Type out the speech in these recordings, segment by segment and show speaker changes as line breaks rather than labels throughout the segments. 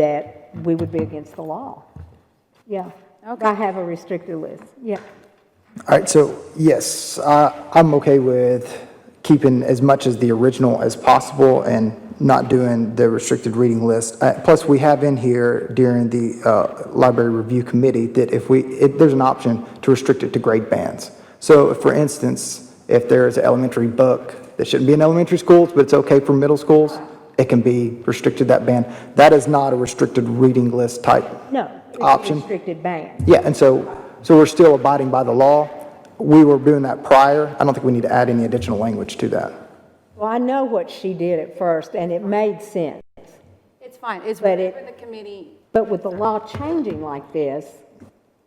that we would be against the law. Yeah.
Okay.
I have a restricted list, yeah.
All right, so yes, I, I'm okay with keeping as much as the original as possible and not doing the restricted reading list. Uh, Plus, we have in here during the uh, library review committee that if we, it- there's an option to restrict it to grade bands. So for instance, if there is an elementary book that shouldn't be in elementary schools, but it's okay for middle schools, it can be restricted that band. That is not a restricted reading list type
No. it's a
option.
Restricted ban.
Yeah, and so, so we're still abiding by the law. We were doing that prior. I don't think we need to add any additional language to that.
Well, I know what she did at first, and it made sense.
It's fine, it's
But it-
whatever the committee,
But with the law changing like this,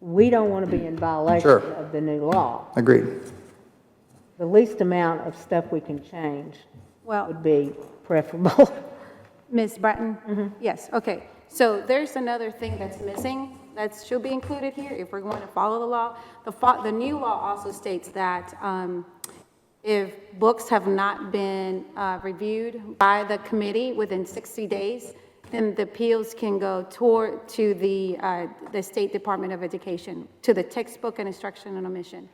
we don't want to be in violation
Sure.
of the new law.
Agreed.
The least amount of stuff we can change
well,
would be preferable.
Ms. Bratton? Yes, okay. So there's another thing that's missing, that should be included here if we're going to follow the law. The, fo- the new law also states that um, if books have not been uh, reviewed by the committee within 60 days, then the appeals can go toward, to the, uh, the State Department of Education, to the textbook and instruction and omission.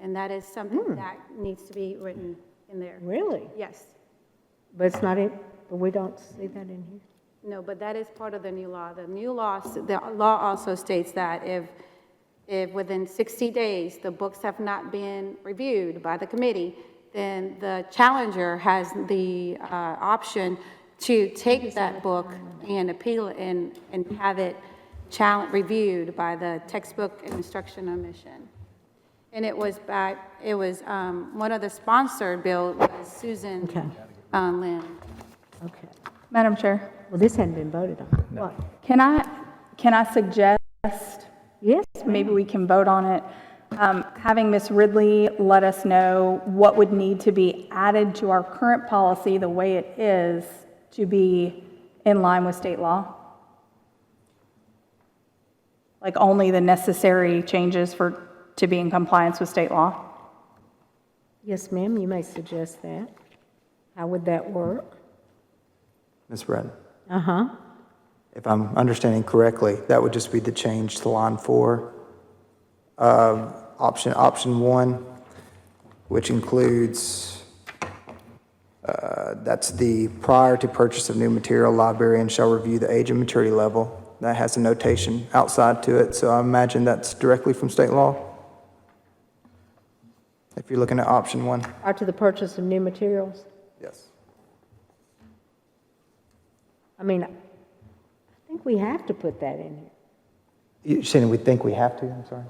And that is something that needs to be written in there.
Really?
Yes.
But it's not in, but we don't see that in here.
No, but that is part of the new law. The new law, the law also states that if, if within 60 days, the books have not been reviewed by the committee, then the challenger has the uh, option to take that book and appeal it and, and have it challenge, reviewed by the textbook and instruction omission. And it was by, it was, um, one of the sponsor bill was Susan
Okay.
uh, Lynn.
Okay.
Madam Chair,
Well, this hadn't been voted on. What?
can I, can I suggest,
Yes,
maybe we can vote on it, um, having Ms. Ridley let us know what would need to be added to our current policy, the way it is, to be in line with state law? Like only the necessary changes for, to be in compliance with state law?
yes, ma'am, you may suggest that. How would that work?
Ms. Bratton,
Uh-huh.
if I'm understanding correctly, that would just be the change to line four. Um, Option, option one, which includes, uh, that's the prior to purchase of new material, librarian shall review the age and maturity level. That has a notation outside to it, so I imagine that's directly from state law. If you're looking at option one.
Or to the purchase of new materials?
Yes.
I mean, I think we have to put that in
You're saying we think we have to, I'm sorry?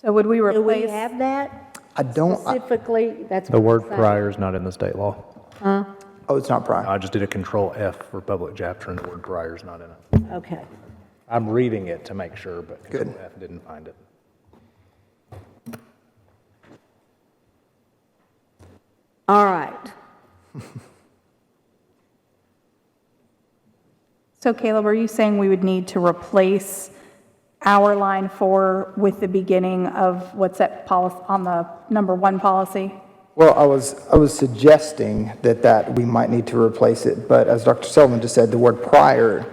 So would we
here. Do we
replace?
have that
I don't, I-
specifically? That's
Oh, The
what
word
I'm saying.
prior is not in the state law.
oh, it's not prior.
I just did a control F for public chapter and the word prior is not in it.
Okay.
I'm reading it to make sure, but control
Good.
F didn't find it.
All right.
So Caleb, are you saying we would need to replace our line four with the beginning of what's that policy, on the number one policy?
Well, I was, I was suggesting that that, we might need to replace it, but as Dr. Sullivan just said, the word prior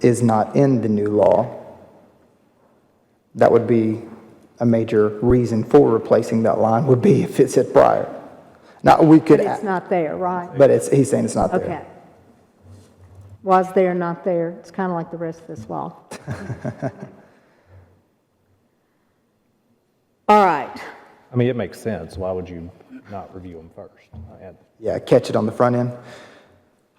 is not in the new law. That would be a major reason for replacing that line, would be if it said prior. Now, we could,
But it's not there, right?
but it's, he's saying it's not there.
Okay. Was there, not there? It's kind of like the rest of this law. All right.
I mean, it makes sense. Why would you not review them first? I had-
Yeah, catch it on the front end.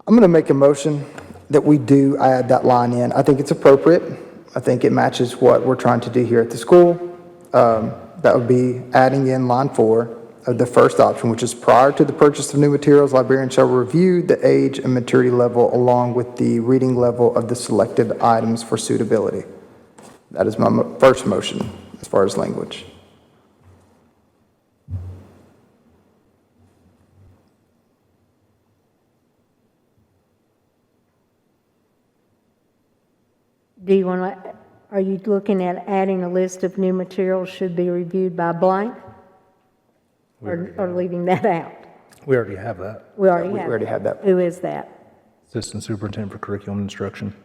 I'm going to make a motion that we do add that line in. I think it's appropriate. I think it matches what we're trying to do here at the school. Um, That would be adding in line four of the first option, which is prior to the purchase of new materials, librarians shall review the age and maturity level along with the reading level of the selected items for suitability. That is my mo- first motion as far as language.
Do you want to, are you looking at adding a list of new materials should be reviewed by blank? Or or leaving that out?
We already have that.
We already
We
have.
already have that.
Who is that?
Assistant Superintendent for Curriculum Instruction.